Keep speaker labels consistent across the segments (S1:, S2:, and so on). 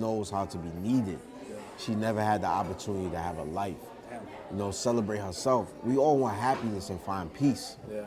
S1: knows how to be needed. She never had the opportunity to have a life. You know, celebrate herself. We all want happiness and find peace.
S2: Yeah.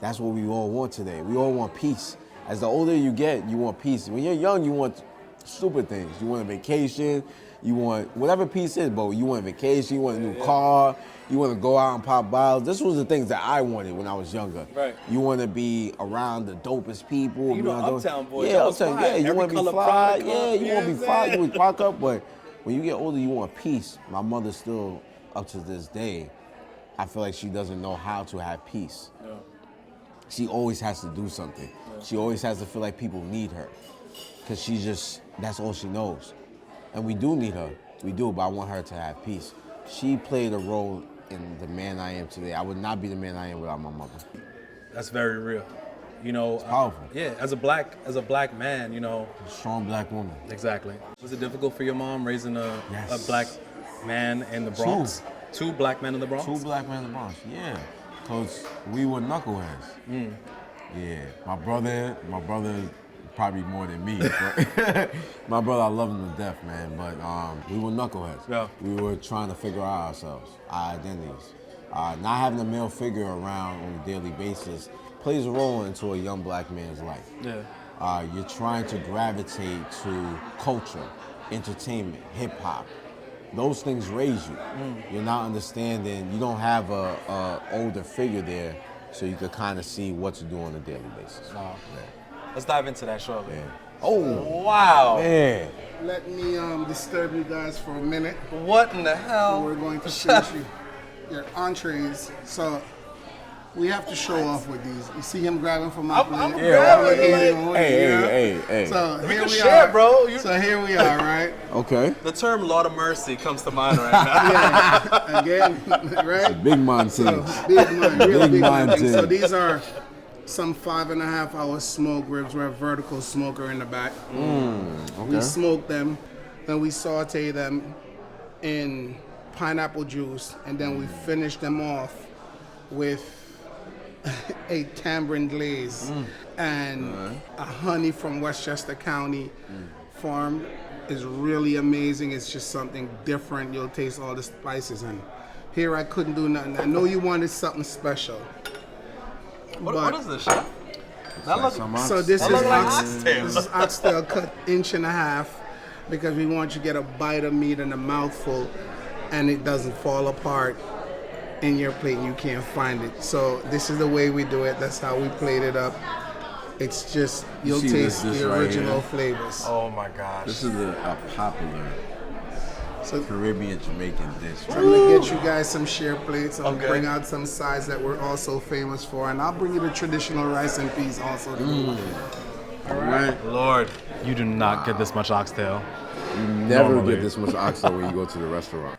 S1: That's what we all want today. We all want peace. As the older you get, you want peace. When you're young, you want stupid things. You want a vacation. You want whatever peace is, but you want a vacation. You want a new car. You want to go out and pop bottles. This was the things that I wanted when I was younger.
S2: Right.
S1: You want to be around the dopest people.
S2: You know,
S1: around those-
S2: Uptown Boys,
S1: Yeah,
S2: that was
S1: uptown.
S2: fly.
S1: Yeah, you
S2: Every
S1: want to be
S2: color
S1: fly.
S2: product
S1: Yeah,
S2: club,
S1: you
S2: you
S1: want to
S2: know
S1: be
S2: what I'm
S1: fly. You
S2: saying?
S1: would fuck up, but when you get older, you want peace. My mother still, up to this day, I feel like she doesn't know how to have peace. She always has to do something. She always has to feel like people need her, because she just that's all she knows, and we do need her. We do, but I want her to have peace. She played a role in the man I am today. I would not be the man I am without my mother.
S2: That's very real. You know, it's
S1: powerful.
S2: yeah, as a black as a black man, you know,
S1: A strong black woman.
S2: exactly. Was it difficult for your mom raising a,
S1: Yes.
S2: a black man in the Bronx? Two, black men in the Bronx.
S1: Two black men in the Bronx, yeah. Cause we were knuckleheads.
S2: Mm.
S1: Yeah. My brother, my brother probably more than me. but- my brother, I love him to death, man. But um, we were knuckleheads.
S2: Yeah.
S1: We were trying to figure out ourselves, our identities. Uh, not having a male figure around on a daily basis plays a role into a young black man's life.
S2: Yeah.
S1: Uh, you're trying to gravitate to culture, entertainment, hip hop. Those things raise you. You're not understanding. You don't have a, a older figure there, so you could kind of see what to do on a daily basis.
S2: Wow. Let's dive into that shortly.
S1: Yeah. Oh
S2: Wow.
S1: man,
S3: Let me um, disturb you guys for a minute.
S2: What in the hell?
S3: We're going to finish you, your entrees. So we have to show off with these. You see him grabbing from my
S2: I'm-
S3: plate.
S2: I'm
S3: Yeah,
S2: grabbing
S3: I'm
S2: it.
S3: eating,
S1: Hey,
S3: yeah.
S1: hey, hey, hey.
S3: So
S2: We
S3: here
S2: can
S3: we
S2: share,
S3: are,
S2: bro. You-
S3: So here we are, right?
S1: okay.
S2: The term "Lord of Mercy" comes to mind right now.
S3: Yeah, again, right?
S1: Big man
S3: So
S1: things.
S3: big money, really
S1: Big
S3: big, money.
S1: money.
S3: So these are some five and a half hour smoke ribs. We're a vertical smoker in the back. We
S1: Okay.
S3: smoke them, then we saute them in pineapple juice, and then we finish them off with a tamarind glaze and a honey from Westchester County farm is really amazing. It's just something different. You'll taste all the spices and here I couldn't do nothing. I know you wanted something special.
S2: What,
S3: but-
S2: what is this shit? That look,
S1: Some ox-
S3: so this
S2: that
S3: is,
S2: look like
S3: ox-
S2: oxtail.
S3: this is oxtail cut inch and a half because we want you to get a bite of meat and a mouthful and it doesn't fall apart in your plate and you can't find it. So this is the way we do it. That's how we plate it up. It's just you'll
S1: see this-
S3: taste
S1: this
S3: the
S1: right
S3: original
S1: here?
S3: flavors.
S2: Oh my gosh.
S1: This is a, a popular
S3: So
S1: Caribbean Jamaican dish.
S3: I'm gonna get you guys some share plates. I'll
S2: Okay.
S3: bring out some sides that we're also famous for, and I'll bring you the traditional rice and peas also. to
S1: Mm.
S3: go with it.
S1: All right.
S2: Lord, you do not get this much oxtail.
S1: You never
S2: Normally.
S1: get this much oxtail when you go to the restaurant.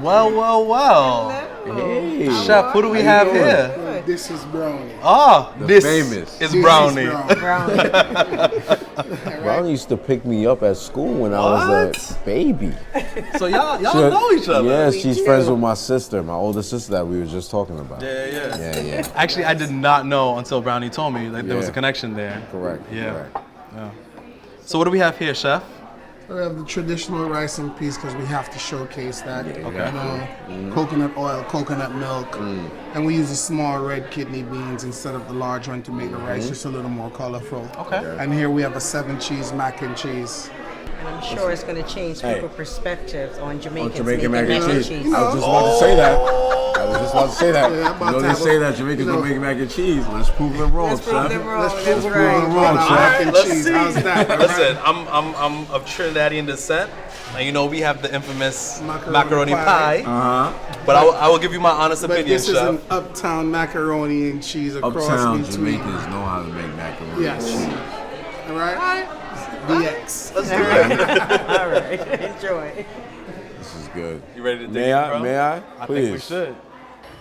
S2: Well, well, well.
S1: Hey.
S2: Chef, who do we have
S1: doing?
S2: here?
S3: Well, This is brownie.
S2: Oh,
S1: The
S2: this
S1: famous.
S2: is
S3: This is
S2: brownie.
S4: Brown.
S1: Brown used to pick me up at school when I was a
S2: What?
S1: baby.
S2: So y'all, y'all know each other.
S1: Yes, she's friends with my sister, my older sister that we were just talking about.
S2: Yeah, yeah.
S1: yeah, yeah.
S2: Actually, I did not know until Brownie told me that there was
S1: Yeah.
S2: a connection there.
S1: Correct.
S2: Yeah.
S1: Correct.
S2: So what do we have here, chef?
S3: We have the traditional rice and peas because we have to showcase that.
S1: Yeah, Mm-hmm. Mm.
S3: You know, Coconut oil, coconut milk, and we use the small red kidney beans instead of the large one to make the
S1: Mm-hmm.
S3: rice just a little more colorful.
S2: Okay. Yeah.
S3: And here we have a seven cheese mac and cheese.
S2: Oh,
S4: And I'm sure it's going to change
S1: Hey.
S4: people's perspectives on Jamaicans
S1: Jamaican mac
S4: making
S1: and cheese. I was
S3: No.
S1: just about to say that. Oh. I was just about to say that.
S3: Yeah, I'm about
S1: you know
S3: to
S1: they
S3: have
S1: say
S3: a-
S1: that Jamaicans
S3: you know-
S1: don't make mac and cheese. Let's prove them wrong,
S4: Let's prove
S1: chef.
S4: them wrong.
S3: Let's
S4: That's
S3: prove it
S4: right.
S3: wrong, with our
S1: All
S3: mac
S1: right,
S3: and
S2: let's
S3: cheese.
S2: see.
S3: How's that? All right.
S2: Listen, I'm, I'm, I'm of Trinidadian descent. And you know, we have the infamous macaroni,
S3: Macaroni
S2: pie.
S3: pie.
S1: Uh-huh.
S2: But I will, I will give you my honest
S3: But
S2: opinion,
S3: this is
S2: chef.
S3: an uptown macaroni and cheese across
S1: Uptown
S3: between.
S1: Jamaicans know how to make macaroni
S3: Yes.
S1: and cheese.
S3: All right? DX.
S2: Let's do it.
S4: All right, enjoy.
S1: This is good.
S2: You ready to take
S1: may
S2: it,
S1: I?
S2: bro?
S1: May I?
S2: I
S1: Please.
S2: think we should.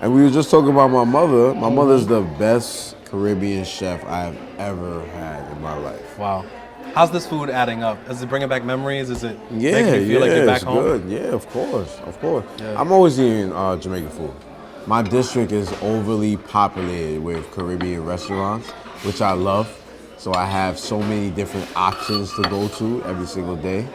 S1: And we were just talking about my mother. My mother's the best Caribbean chef I've ever had in my life.
S2: Wow. How's this food adding up? Is it bringing back memories? Is it
S1: Yeah,
S2: making you feel
S1: yeah,
S2: like you're back
S1: it's
S2: home?
S1: good. Yeah, of course, of course.
S2: Yeah.
S1: I'm always eating uh, Jamaican food. My district is overly populated with Caribbean restaurants, which
S2: Hmm.
S1: I love. So I have so many different options to go to every single day.